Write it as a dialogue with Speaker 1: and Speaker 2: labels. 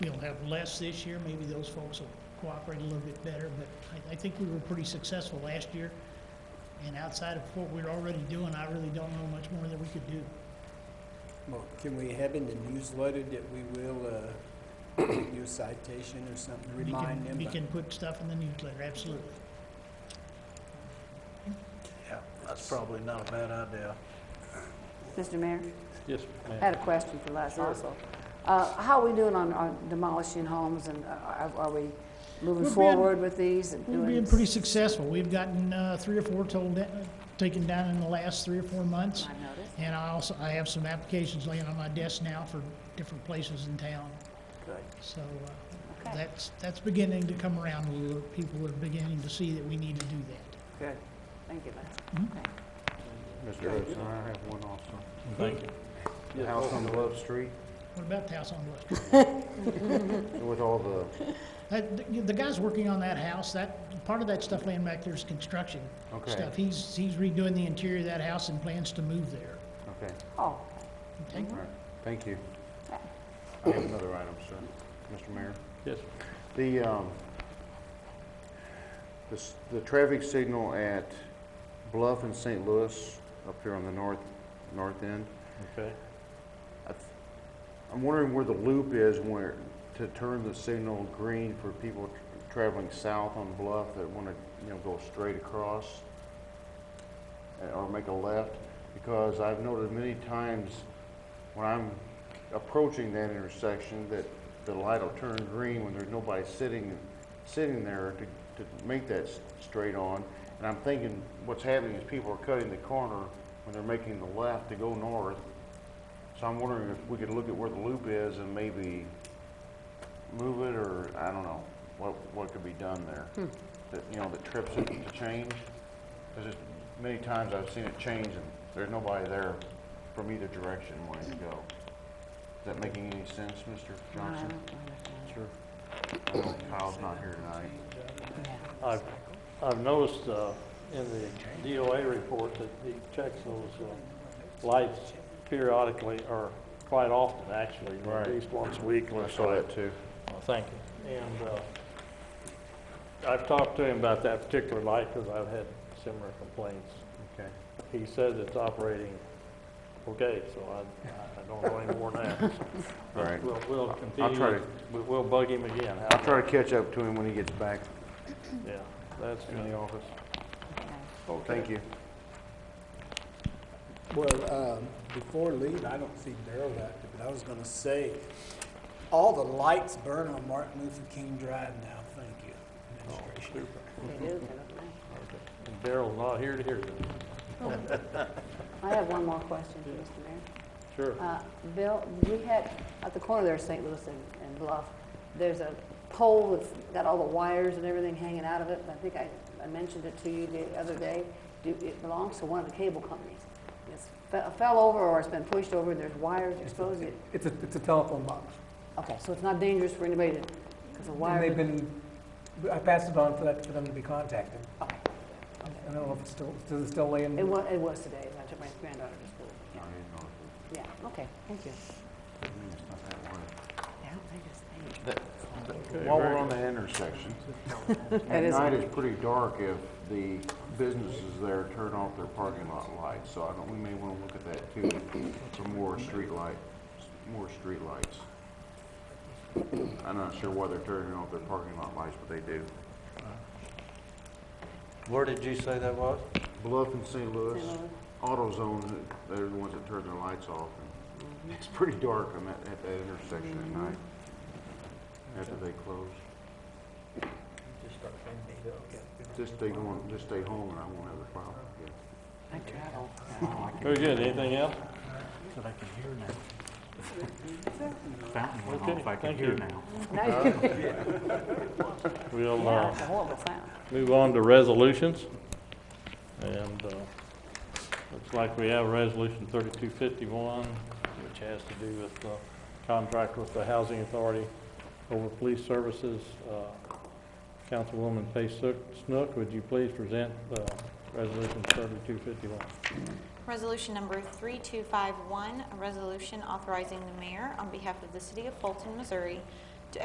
Speaker 1: have less this year, maybe those folks will cooperate a little bit better, but I, I think we were pretty successful last year. And outside of what we're already doing, I really don't know much more that we could do.
Speaker 2: Well, can we have in the newsletter that we will, uh, do a citation or something,
Speaker 1: We can-
Speaker 2: remind them?
Speaker 1: We
Speaker 2: about-
Speaker 1: can put stuff in the newsletter, absolutely.
Speaker 3: Yeah, that's probably not a bad idea.
Speaker 4: Mr. Mayor,
Speaker 3: Yes,
Speaker 4: I
Speaker 3: ma'am.
Speaker 4: had a question for Les also. Uh, How are we doing on on demolishing homes, and uh, are are we
Speaker 1: We're
Speaker 4: moving
Speaker 1: being-
Speaker 4: forward with these? and
Speaker 1: We're
Speaker 4: doing
Speaker 1: being
Speaker 4: s-
Speaker 1: pretty successful. We've gotten, uh, three or four told, uh, taken down in the last three or four months.
Speaker 4: I noticed.
Speaker 1: And I also, I have some applications laying on my desk now for different places in town.
Speaker 2: Good.
Speaker 1: So uh,
Speaker 4: Okay.
Speaker 1: that's, that's beginning to come around a little. People are beginning to see that we need to do that.
Speaker 4: Good. Thank you, Les.
Speaker 1: Mhm.
Speaker 4: Okay.
Speaker 5: Mr. Hudson, I have one also.
Speaker 3: Thank you.
Speaker 5: The house on Love Street
Speaker 1: What about the house on Love Street?
Speaker 5: with all the,
Speaker 1: That- The the guy's working on that house, that, part of that stuff laying back there is construction
Speaker 5: Okay.
Speaker 1: stuff. He's, he's redoing the interior of that house and plans to move there.
Speaker 5: okay,
Speaker 4: Oh,
Speaker 1: Okay?
Speaker 5: all right, thank you. I have another item, sir, Mr. Mayor.
Speaker 3: Yes.
Speaker 5: The, um, the, s- the traffic signal at Bluff and St. Louis up here on the north, north end,
Speaker 3: Okay.
Speaker 5: I th- I'm wondering where the loop is where, to turn the signal green for people tr- traveling south on Bluff that want to, you know, go straight across uh, or make a left, because I've noted many times when I'm approaching that intersection that the light will turn green when there's nobody sitting, sitting there to, to make that s- straight on. And I'm thinking what's happening is people are cutting the corner when they're making the left to go north, so I'm wondering if we could look at where the loop is and maybe move it, or, I don't know, what, what could be done there?
Speaker 4: Hmm.
Speaker 5: That, you know, that trips it to change? Because many times I've seen it change, and there's nobody there from either direction wanting to go. Is that making any sense, Mr.
Speaker 4: no, I
Speaker 5: Johnson?
Speaker 4: don't understand.
Speaker 5: Sure. I know Kyle's not here tonight.
Speaker 3: I've, I've noticed, uh, in the DOA report that he checks those, uh, lights periodically, or quite often, actually,
Speaker 5: Right.
Speaker 3: at least once a week.
Speaker 5: Well, I saw that too.
Speaker 3: Well, Thank you. And, uh, I've talked to him about that particular light, because I've had similar complaints.
Speaker 5: Okay.
Speaker 3: He says it's operating okay, so I, I don't know any more now.
Speaker 5: All right.
Speaker 3: We'll, we'll
Speaker 5: I'll try
Speaker 3: continue,
Speaker 5: to-
Speaker 3: we- we'll bug him again. How-
Speaker 5: I'll try to catch up to him when he gets back
Speaker 3: Yeah, that's
Speaker 5: in the
Speaker 3: good.
Speaker 5: office. Thank you.
Speaker 2: Well, um, before leaving, I don't see Daryl active, but I was gonna say, all the lights burn on Martin Luther King Drive now, thank you, administration.
Speaker 4: They do, don't they?
Speaker 3: And Daryl's not here to hear this.
Speaker 4: I have one more question for Mr. Mayor.
Speaker 3: Sure.
Speaker 4: Uh, Bill, we had, at the corner there, of St. Louis and and Bluff, there's a pole that's got all the wires and everything hanging out of it. I think I, I mentioned it to you the other day. Do, it belongs to one of the cable companies. It's fe- fell over or it's been pushed over, and there's wires exposing it.
Speaker 6: It's a, it's a telephone box.
Speaker 4: Okay, so it's not dangerous for anybody to, because the
Speaker 6: And
Speaker 4: wire.
Speaker 6: they've been, I passed it on for that, for them to be contacted. I don't know if it's still, does it still lay in?
Speaker 4: It was, it was today, I took my granddaughter to school. Yeah. Yeah, okay, thank you. Yeah, I don't think it's dangerous.
Speaker 5: While we're on the intersection, at
Speaker 4: is-
Speaker 5: night it's pretty dark if the businesses there turn off their parking lot lights, so I don't, we may want to look at that too, for more street light, more street lights. I'm not sure why they're turning off their parking lot lights, but they do.
Speaker 3: Where did you say that was?
Speaker 5: Bluff and St. Louis,
Speaker 4: St. Louis.
Speaker 5: AutoZone, they're the ones that turn their lights off. and It's pretty dark on that, at that intersection at night, after they close. Just stay going, just stay home and I won't have a problem.
Speaker 4: I travel.
Speaker 3: Very good. Anything else?
Speaker 7: that I can hear now. Fountain went off, I
Speaker 3: thank
Speaker 7: can hear
Speaker 3: you.
Speaker 7: now.
Speaker 4: Now you-
Speaker 3: We'll,
Speaker 4: Yeah,
Speaker 3: uh,
Speaker 4: it's a horrible sound.
Speaker 3: move on to resolutions. And, uh, looks like we have resolution thirty-two fifty-one, which has to do with, uh, contract with the Housing Authority over Police Services. Uh, Councilwoman Pace Snook, would you please present, uh, resolution thirty-two fifty-one?
Speaker 8: Resolution number 3251, a resolution authorizing the mayor on behalf of the city of Fulton, Missouri